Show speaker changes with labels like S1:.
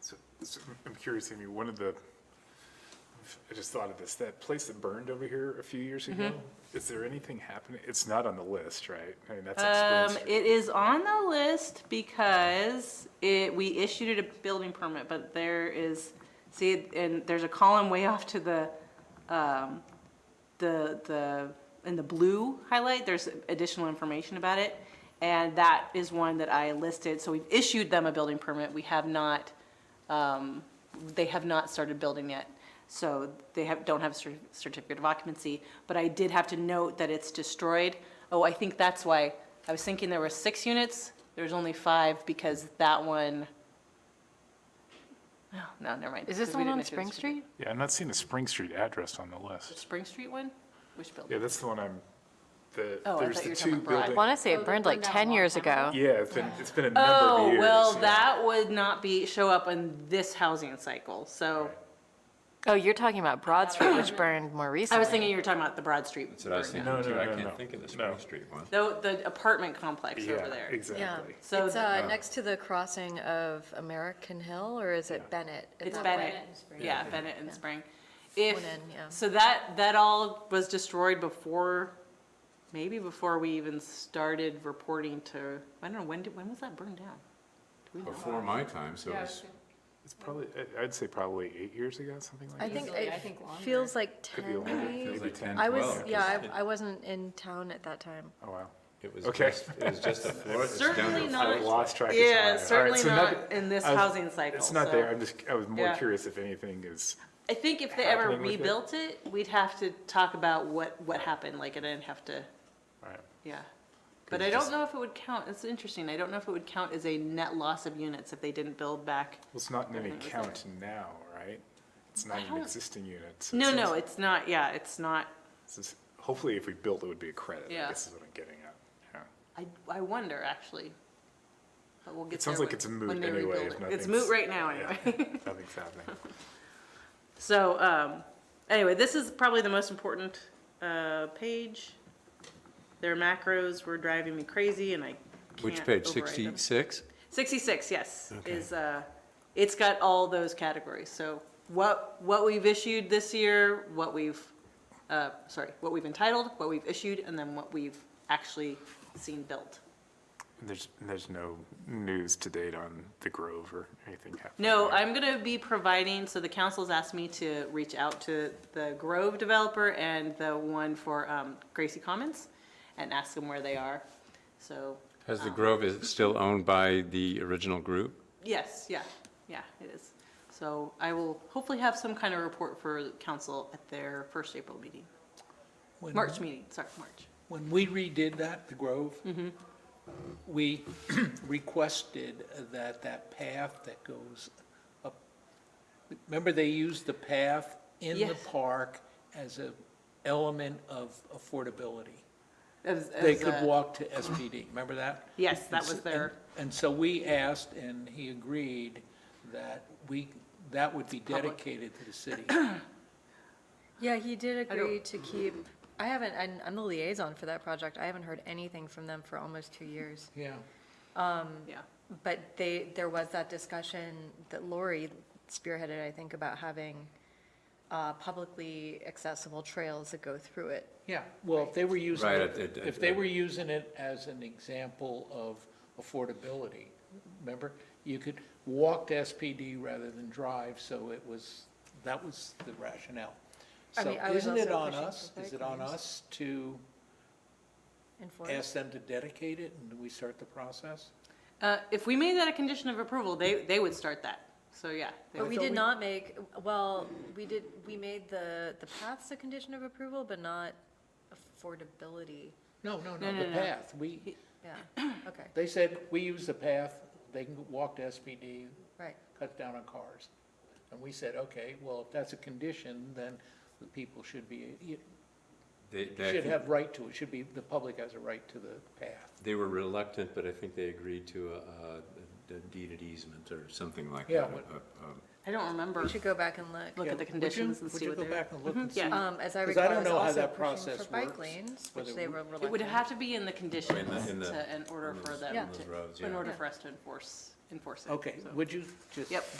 S1: So, I'm curious, Amy, one of the, I just thought of this, that place that burned over here a few years ago,
S2: Mm-hmm.
S1: is there anything happening? It's not on the list, right? I mean, that's on
S2: Um,
S1: Spring Street.
S2: it is on the list because it, we issued it a building permit, but there is, see, and there's a column way off to the, um, the, the, in the blue highlight, there's additional information about it. And that is one that I listed, so we've issued them a building permit, we have not, um, they have not started building yet. So they have, don't have a cer- certificate of occupancy, but I did have to note that it's destroyed. Oh, I think that's why, I was thinking there were six units, there's only five because that one, oh, no, never mind.
S3: Is this
S2: because
S3: the
S2: we
S3: one
S2: didn't
S3: on
S2: issue the
S3: Spring Street?
S1: Yeah, I'm not seeing a Spring Street address on the list.
S2: Spring Street one? Which building?
S1: Yeah, that's the one I'm, the,
S2: Oh, I
S1: there's
S2: thought
S1: the
S2: you were
S1: two
S2: talking about Broad.
S3: I
S1: buildings.
S3: want to say
S4: Oh,
S3: it
S4: they
S3: burned like
S4: burned down a
S3: 10
S4: long
S3: years
S4: time
S3: ago.
S4: ago.
S1: Yeah, it's been, it's been a number of
S2: Oh,
S1: years.
S2: well,
S1: yeah.
S2: that would not be, show up in this housing cycle, so.
S3: Oh, you're talking about Broad Street, which burned more recently.
S2: I was thinking you were talking about the Broad Street.
S5: That's what I was
S2: burn
S5: thinking
S2: down.
S1: No,
S5: too.
S1: no,
S5: I
S1: no, no.
S5: can't think of the
S1: No.
S5: Spring Street one.
S2: Though the apartment complex over
S1: Yeah,
S2: there.
S1: exactly.
S2: So
S3: It's
S2: th-
S3: uh, next to the crossing of American Hill, or is it Bennett? at
S2: it's
S3: that
S2: Bennett,
S3: point?
S2: yeah, Bennett and Spring. If,
S3: One in, yeah.
S2: so that, that all was destroyed before, maybe before we even started reporting to, I don't know, when did, when was that burned down?
S5: Before my time, so it was,
S1: It's probably, I- I'd say probably eight years ago, something like
S3: I
S1: that.
S3: think
S4: Easily,
S3: it
S4: I think longer.
S3: feels like
S1: Could be
S3: 10,
S1: longer,
S3: maybe.
S1: maybe
S5: like
S1: 10.
S3: I was,
S5: 12,
S3: yeah,
S5: because
S3: I I wasn't in town at that time.
S1: Oh, wow.
S5: it was
S1: Okay.
S5: just, it was just a floor. It's down to
S2: Certainly
S5: a
S2: not-
S1: I
S5: floor.
S1: lost track of time. All
S2: Yeah,
S1: right,
S2: certainly
S1: so nothing-
S2: not in this
S1: I was-
S2: housing cycle.
S1: It's not
S2: so-
S1: there, I'm just, I was more
S2: Yeah.
S1: curious if anything is,
S2: I think if they ever
S1: happening with it?
S2: rebuilt it, we'd have to talk about what, what happened, like, I didn't have to,
S1: all right.
S2: yeah. But
S1: Could
S2: I
S1: just-
S2: don't know if it would count, it's interesting, I don't know if it would count as a net loss of units if they didn't build back.
S1: Well, it's not in any
S2: Definitely was
S1: count now, right? It's not an
S2: don't-
S1: existing unit. so
S2: No,
S1: it's-
S2: no, it's not, yeah, it's not,
S1: it's just- Hopefully, if we built, it would be a credit, I
S2: Yeah.
S1: guess is what I'm getting at. Yeah.
S2: I, I wonder, actually. But we'll get
S1: It sounds
S2: there
S1: like
S2: when-
S1: it's moot
S2: when they
S1: anyway,
S2: rebuild
S1: if
S2: it. It's
S1: nothing's-
S2: moot right now,
S1: yeah,
S2: anyway.
S1: Nothing's happening.
S2: So, um, anyway, this is probably the most important, uh, page. Their macros were driving me crazy and I
S5: Which
S2: can't
S5: page,
S2: override them.
S5: sixty-six?
S2: 66, yes, is, uh, it's got all those categories. So what, what we've issued this year, what we've, uh, sorry, what we've entitled, what we've issued, and then what we've actually seen built.
S1: And There's, and there's no news to date on the Grove or anything happening.
S2: No,
S1: there.
S2: I'm gonna be providing, so the council's asked me to reach out to the Grove developer and the one for um, Gracie Commons and ask them where they are. So,
S5: Has the Grove is still owned by the original group?
S2: yes, yeah, yeah, it is. So I will hopefully have some kind of report for council at their first April meeting,
S6: When-
S2: March meeting, sorry, March.
S6: When we redid that, the Grove,
S2: Mm-hmm.
S6: we requested that that path that goes up, remember they used the path in the
S2: Yes.
S6: park as a element of affordability?
S2: As- uh,
S6: They
S2: as
S6: could
S2: a-
S6: walk to SPD, remember that?
S2: Yes, that
S6: And
S2: was
S6: s-
S2: their-
S6: and- And so we asked, and he agreed, that we, that would be dedicated to the city.
S3: Yeah, he did
S2: I don't-
S3: agree to keep, I haven't, I'm- I'm the liaison for that project. I haven't heard anything from them for almost two years.
S6: Yeah.
S2: Yeah,
S3: But they, there was that discussion that Lori spearheaded, I think, about having uh, publicly accessible trails that go through it.
S6: Yeah, well, if they were using
S5: Right,
S6: it,
S5: it- it-
S6: if they were using it as an example of affordability, remember? You could walk to SPD rather than drive, so it was, that was the rationale.
S3: I
S6: So
S3: mean, I was
S6: isn't it
S3: also
S6: on
S3: pushing
S6: us,
S3: for
S6: is it on
S3: bike lanes.
S6: us to
S3: Enforce.
S6: ask them to dedicate it and we start the process?
S2: Uh, if we made that a condition of approval, they, they would start that, so yeah. they
S3: But
S2: would-
S3: we did not make, well, we did, we made the, the paths a condition of approval, but not affordability.
S6: No, no,
S2: No,
S6: no, the
S2: no, no.
S6: path, we,
S3: Yeah, okay,
S6: they said, we use the path, they can walk to SPD,
S3: right.
S6: cut down on cars. And we said, okay, well, if that's a condition, then the people should be, you
S5: They,
S6: should have right to, it should be, the public has a right to the path.
S5: they were reluctant, but I think they agreed to a, a deed at easement or something like that.
S6: Yeah, what-
S2: I don't remember,
S3: We should go back and
S2: look
S3: look.
S6: Yeah,
S2: at
S6: would
S2: the
S6: you-
S2: conditions and
S6: would
S2: see
S6: you
S2: what
S6: go
S2: they're.
S6: back and look and
S2: Mhm, yeah.
S6: see?
S3: Um, as I
S6: 'Cause I
S3: recall, I
S6: don't
S3: was
S6: know how
S3: also
S6: that
S3: pushing for
S6: process
S3: bike
S6: works,
S3: lanes, which
S6: whether
S3: they
S6: we-
S3: were
S2: It would
S3: reluctant.
S2: have to be in the conditions
S5: in the-
S2: to, in order
S5: in
S2: for
S5: those-
S2: them
S5: in those roads,
S2: to, in
S5: yeah.
S2: order for us to enforce, enforce it.
S6: Okay,
S2: so.
S6: would you just?
S2: Yep.